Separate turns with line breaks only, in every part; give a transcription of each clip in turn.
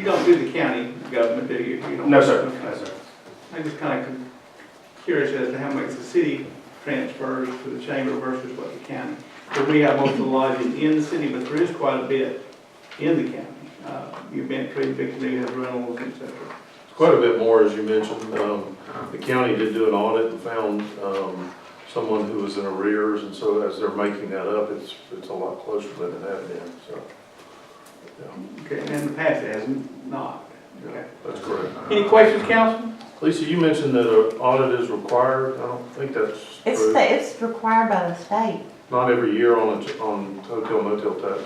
You don't do the county government, do you? You don't-
No, sir.
Okay.
No, sir.
I'm just kind of curious as to how much the city transfers to the chamber versus what the county. But we have most of the lodging in the city, but there is quite a bit in the county. Uh, You've been to Victor, you have rentals, et cetera.
Quite a bit more, as you mentioned. Um, The county did do an audit and found um, someone who was in arrears, and so as they're making that up, it's, it's a lot closer than it had been, so. yeah,
Okay, and in the past it hasn't not. Okay.
That's correct.
Any questions, council?
Lisa, you mentioned that an audit is required. I don't think that's
It's,
true.
the- it's required by the state.
Not every year on, a- on hotel motel tax.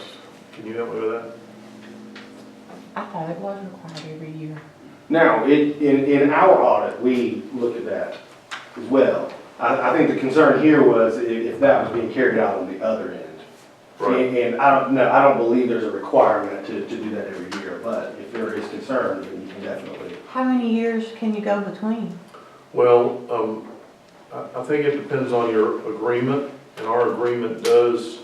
Can you help me with that?
I thought it was required every year.
Now, in, in, in our audit, we looked at that as well. I, I think the concern here was i- if that was being carried out on the other end.
Right.
And, and I don't, no, I don't believe there's a requirement to, to do that every year, but if there is concern, then you can definitely.
How many years can you go between?
Well, um, I, I think it depends on your agreement, and our agreement does,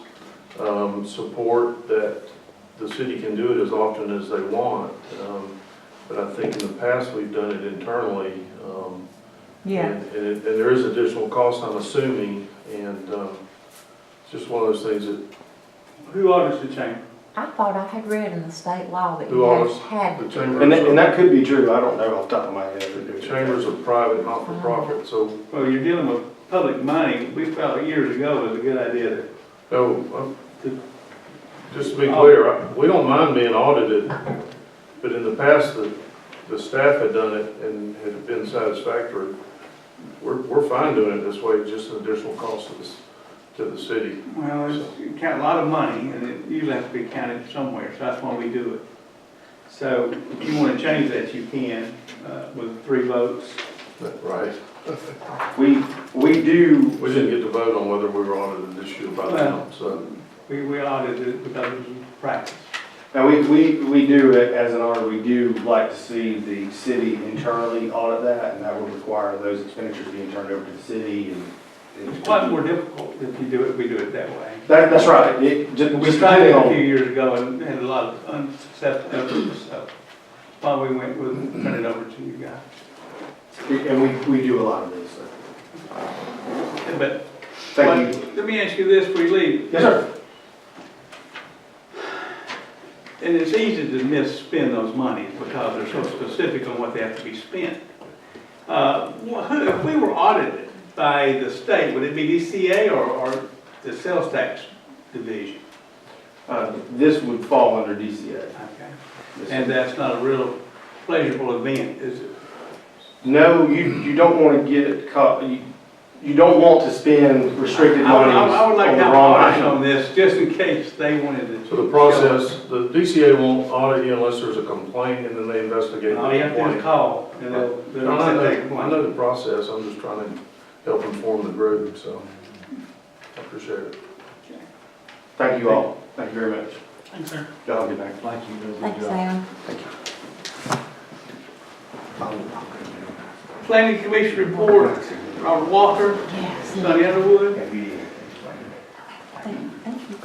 um, support that the city can do it as often as they want. Um, But I think in the past, we've done it internally, um,
Yeah,
and, and it- and there is additional cost, I'm assuming, and, um, it's just one of those things that
Who audits the chamber?
I thought I had read in the state law that
Who
you had-
owns
had,
the
And that, and
chambers,
that could be true, I don't know off the top of my head.
the chambers are private, not-for-profit, so,
Well, you're dealing with public money. We felt years ago it was a good idea to
no, I'm uh, Just to be clear, I- we don't mind being audited, but in the past, the, the staff had done it and had been satisfactory. We're, we're fine doing it this way, just an additional cost to this, to the city.
Well, it's count a lot of money, and it usually has to be counted somewhere, so that's why we do it. So if you want to change that, you can, uh, with three votes.
Right.
We, we do,
We didn't get to vote on whether we were audited this year by the town, so.
We, we audited it because it was practice.
now, we, we, we do, as an audit, we do like to see the city internally audit that, and that would require those expenditures being turned over to the city and.
It's quite more difficult if you do it, we do it that way.
That, that's right, it, just,
We
just
tried it
depending
a few
on,
years ago and had a lot of unsuccessful efforts, so while we went, we'll turn it over to you guys.
and we, we do a lot of this, so,
But,
thank you.
but let me ask you this before you leave.
Yes, sir.
And it's easy to misspend those monies because they're so specific on what they have to be spent. Uh, wh- who- If we were audited by the state, would it be DCA or, or the sales tax division?
Uh, this would fall under DCA.
Okay.
Yes, sir.
And that's not a real pleasurable event, is it?
No, you, you don't wanna get caught, you, you don't want to spend restricted
I would-
money
I would- I would like
on
to
the
have
wrong
audit
item.
on this, just in case they wanted to.
So the process, the DCA won't audit you unless there's a complaint and then they investigate
All
the
you have to do is
complaint.
Oh, call, and they'll,
No,
they'll
I
accept that
know, I
complaint.
know the process, I'm just trying to help inform the group, so I appreciate it.
Thank you all, thank you very much.
Thanks, sir.
Y'all have a good night.
thanks, Sam.
Planning Commission report, Robert Walker,
Yes.
Sonny Underwood.
Thank thank you.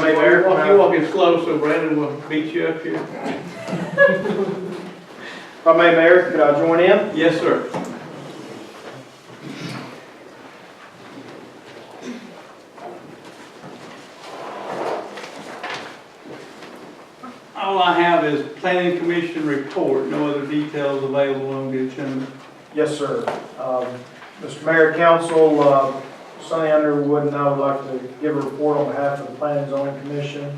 Mayor, walk- you walk in slow, so Brandon will beat you up here.
If I may, Mayor, could I join in?
Yes, sir. All I have is planning commission report, no other details available on the agenda.
Yes, sir. Um, Mr. Mayor, Council, uh, Sonny Underwood and I would like to give a report on behalf of the Planning and Zoning Commission.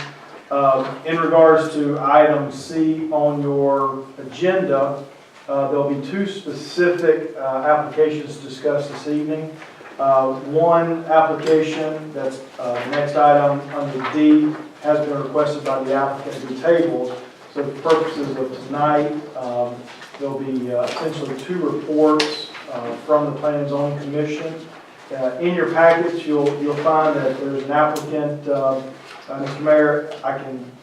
Um, In regards to item C on your agenda, uh, there'll be two specific uh, applications discussed this evening. Uh, One application, that's uh, next item under D, has been requested by the applicant to be tabled. So for purposes of tonight, um, There'll be uh, essentially two reports uh, from the Plan Zone Commission. Uh, In your package, you'll, you'll find that there's an applicant, uh, uh, Mr. Mayor, I can